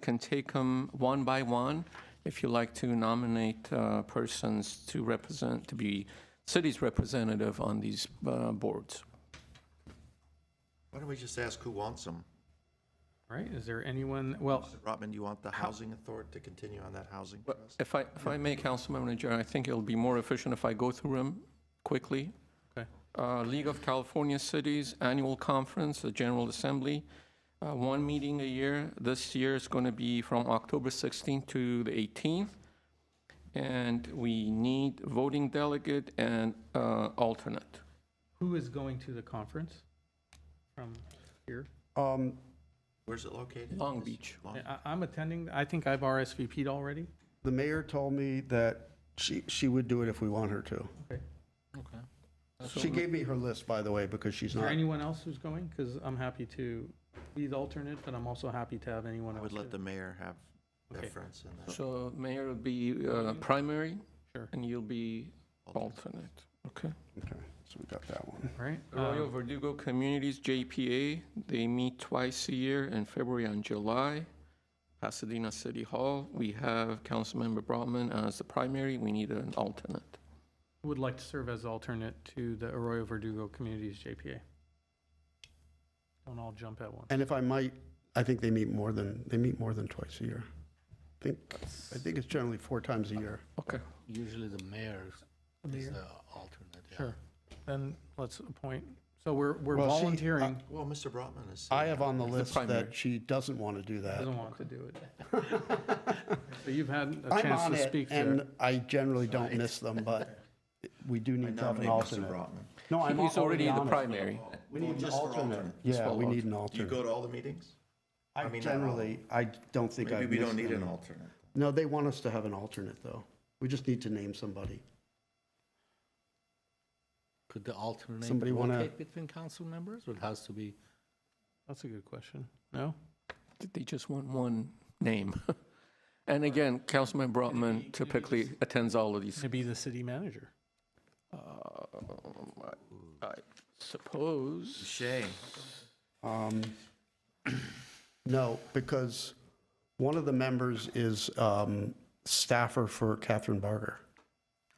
can take them one by one. If you like to nominate uh, persons to represent, to be city's representative on these uh, boards. Why don't we just ask who wants them? All right, is there anyone, well, Rotman, you want the housing authority to continue on that housing But trust? If I, if I may, Council Manager, I think it'll be more efficient if I go through them quickly. Okay. Uh, League of California Cities Annual Conference, the General Assembly, uh, one meeting a year. This year is going to be from October 16th to the 18th. And we need voting delegate and uh, alternate. who is going to the conference from here? Um, Where's it located? Long Beach. Long- I, I'm attending, I think I've RSVP'd already. The mayor told me that she, she would do it if we want her to. Okay. She gave me her list, by the way, because she's Is there not, anyone else who's going? Because I'm happy to be the alternate, but I'm also happy to have anyone I else. would let the too. mayor have Okay. deference in that. So Mayor will be uh, primary Sure. and you'll be alternate. Okay. okay, so we got that one. All right. Arroyo um, Verdugo Communities, JPA, they meet twice a year in February and July. Pasadena City Hall, we have Councilmember Brotman as the primary, we need an alternate. Would like to serve as alternate to the Arroyo Verdugo Communities JPA. Don't all jump at once. And if I might, I think they meet more than, they meet more than twice a year. I think, I think it's generally four times a year. Okay, Usually the mayor is the alternate. yeah. Sure. Then let's appoint, so we're, we're Well, she- uh, volunteering, Well, Mr. Brotman is. I have on the The list primary. that she doesn't want to do that. doesn't want to do it. So you've had a I'm chance on to it, speak and there. I generally don't miss them, but we do I need to have nominate an Mr. alternate. Brotman. No, I'm he's already on the it. primary. We need an Just for alternate. alternate. Yeah, Just we for need an Do you alternate. go to all the meetings? I I mean, not all. generally, I don't think I've Maybe we don't missed need an any. alternate. No, they want us to have an alternate, though. We just need to name somebody. Could the alternate Somebody wanna- rotate between council members or it has to be? That's a good question. No? They just want one name. And again, Councilman Brotman typically attends all of these. To be the city manager. Um, I- I suppose, Shame. Um, No, because one of the members is um, staffer for Catherine Barger.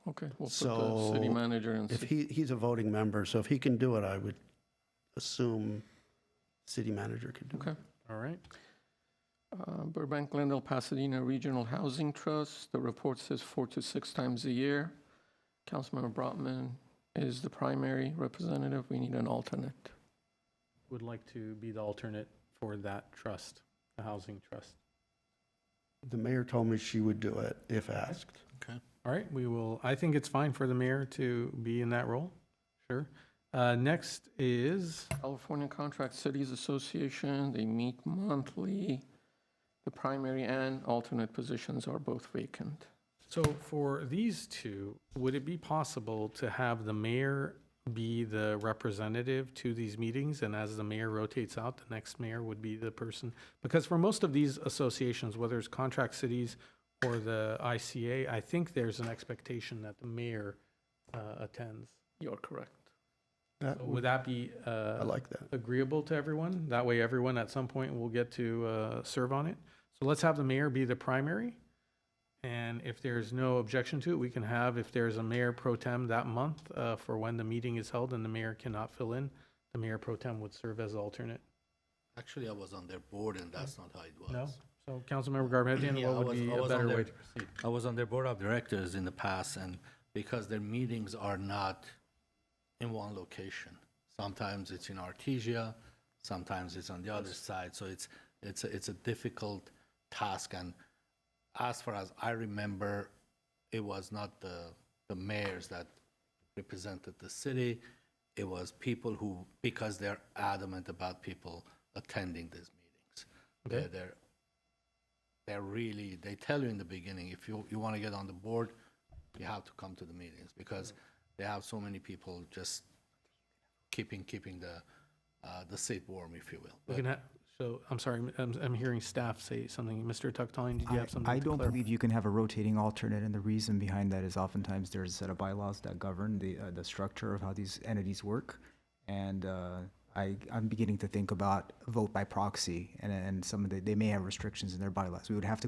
okay, we'll put the city So, manager and If city he, he's a voting member, so if he can do it, I would assume city manager could do it. Okay. All right. Uh, Burbank Glendale Pasadena Regional Housing Trust, the report says four to six times a year. Councilmember Brotman is the primary representative, we need an alternate. Would like to be the alternate for that trust, the housing trust. The mayor told me she would do it if asked. Okay. All right, we will, I think it's fine for the mayor to be in that role. Sure. Uh, next is, California Contract Cities Association, they meet monthly. The primary and alternate positions are both vacant. so for these two, would it be possible to have the mayor be the representative to these meetings? And as the mayor rotates out, the next mayor would be the person? Because for most of these associations, whether it's contract cities or the ICA, I think there's an expectation that the mayor, uh, attends. You're correct. That Would would- that be, I uh, like that. agreeable to everyone. That way, everyone at some point will get to uh, serve on it. So let's have the mayor be the primary. And if there's no objection to it, we can have, if there's a mayor pro tem that month uh, for when the meeting is held and the mayor cannot fill in, the mayor pro tem would serve as alternate. Actually, I was on their board and that's not how it was. No? So Councilmember Garabedian, Yeah, I what would was- be I a was on better their- way to proceed? I was on their board of directors in the past and because their meetings are not in one location. Sometimes it's in Artesia, sometimes it's on the other side. So it's, it's, a- it's a difficult task. And as far as I remember, it was not the, the mayors that represented the city. It was people who, because they're adamant about people attending these meetings. They're, they're they're really they tell you in the beginning if you, you want to get on the board you have to come to the meetings because they have so many people just keeping keeping the uh, the seat warm if you will We can ha- So, I'm sorry, I'm, I'm hearing staff say something. Mr. Tuckton, did you I- have something I to don't clarify? believe you can have a rotating alternate, and the reason behind that is oftentimes there's a set of bylaws that govern the, uh, the structure of how these entities work. And, uh, I, I'm beginning to think about vote by proxy and, and some of the, they may have restrictions in their bylaws. We would have to